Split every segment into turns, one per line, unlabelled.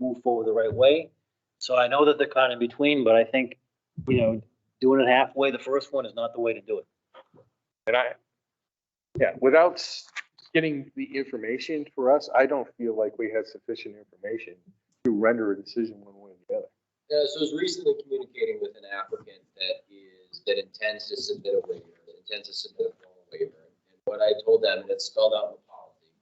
move forward the right way. So I know that they're kind of in between, but I think, you know, doing it halfway, the first one is not the way to do it.
And I, yeah, without s- getting the information for us, I don't feel like we had sufficient information to render a decision one way or the other.
Yeah, so I was recently communicating with an applicant that is, that intends to submit a waiver, that intends to submit a formal waiver. And what I told them, and it's spelled out in the policy,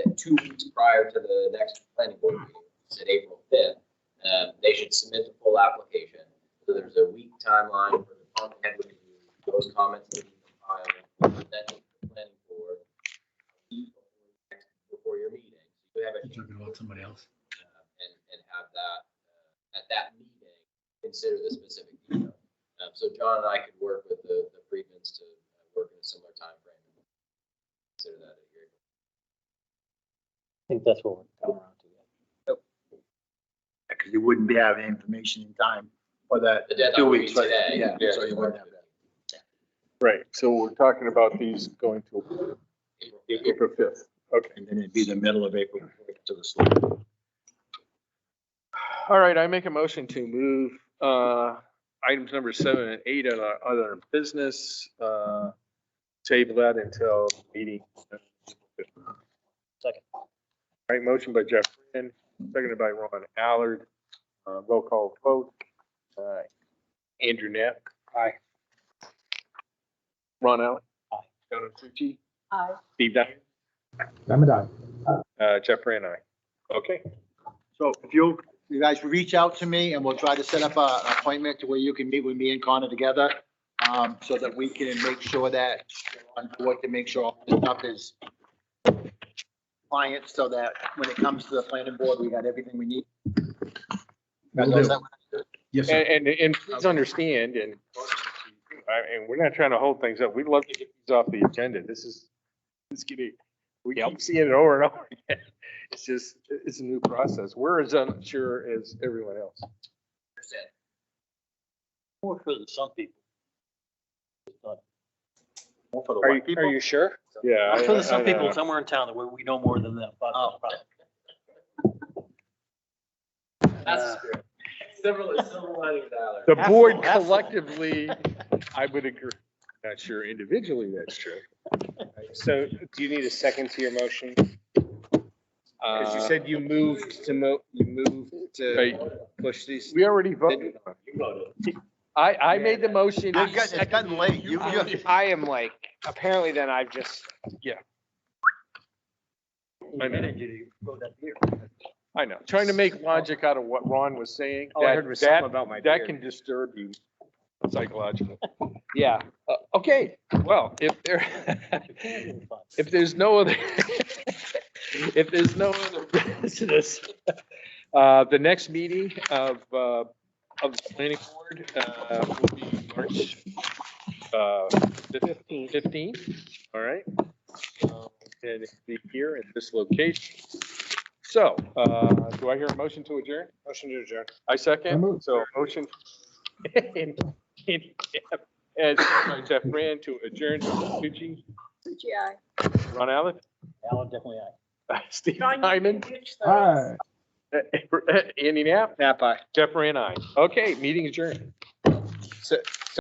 that two weeks prior to the next planning board meeting, it's in April fifth, um, they should submit the full application. So there's a week timeline for the department head review, those comments that you file, then to the planning board. a week before the next- Before your meeting, you have a.
You're talking about somebody else.
uh, and, and have that, uh, at that meeting, consider the specific detail. Um, so John and I could work with the, the Freedmans to uh, work in a similar timeframe. and Consider that a year.
I think that's what we're coming around to.
Because you wouldn't be having information in time for that.
The deadline
two
would be
weeks, right?
today.
Yeah, so you wouldn't have that.
Right, so we're talking about these going to
April fifth.
April fifth. Okay.
And then it'd be the middle of April to the select.
All right, I make a motion to move, uh, items number seven and eight on our other business, uh, table that until meeting. All
Second.
right, motion by Jeff Friend, seconded by Ron Allard, uh, roll call vote. Uh, Andrew Knapp. Aye. Ron Allard.
Aye.
Donna Tucci.
Aye.
Steve Dyer.
I'm a dog.
Uh, Jeff Friend, aye. Okay.
So if you, you guys reach out to me and we'll try to set up a, an appointment to where you can meet with me and Connor together. Um, so that we can make sure that, on board to make sure all this stuff is client, so that when it comes to the planning board, we got everything we need.
Will
Is
do.
that what-
Yes, sir.
And, and, and please understand, and, I- and we're not trying to hold things up. We'd love to get these off the agenda. This is, this could be, we keep seeing it over and over again. It's just, it's a new process. We're as unsure as everyone else.
Understand.
More for some people.
More for the
Are
white
you, are
people?
you sure? Yeah.
I'm
I-
sure there's
I-
some
I
people
know.
somewhere in town that we, we know more than them. but-
Oh. That's the spirit. Several, several lining dollars.
The board
Absolutely.
collectively, I would agree. Not sure individually that's true.
So do you need a second to your motion? Because you
Uh,
said you moved to mo, you moved to
right,
push these.
We already voted. on it.
You voted.
I, I made the motion.
It's gotten- it's gotten late. You, you.
I am like, apparently then I've just,
I know.
Energy to go that year.
I know, trying to make logic out of what Ron was saying.
all Oh, I
that-
heard was
that-
something about my
That can
beard.
disturb you psychologically.
Yeah,
Uh, Okay, well, if there, if there's no other, if there's no other business, uh, the next meeting of, uh, of the planning board, uh, will be March, uh, fifteenth, all right? Um, And it'll be here at this location. So, uh, do I hear a motion to adjourn?
motion to adjourn.
I
I
second,
move.
so motion. And, and, and by Jeff Rand to adjourn, Tucci,
Suchi, aye.
Ron Allen,
Alan definitely, aye.
Steve uh, Hyman,
Hi.
Andy Knapp,
Napa.
Jeff Rand, I. Okay, meeting adjourned.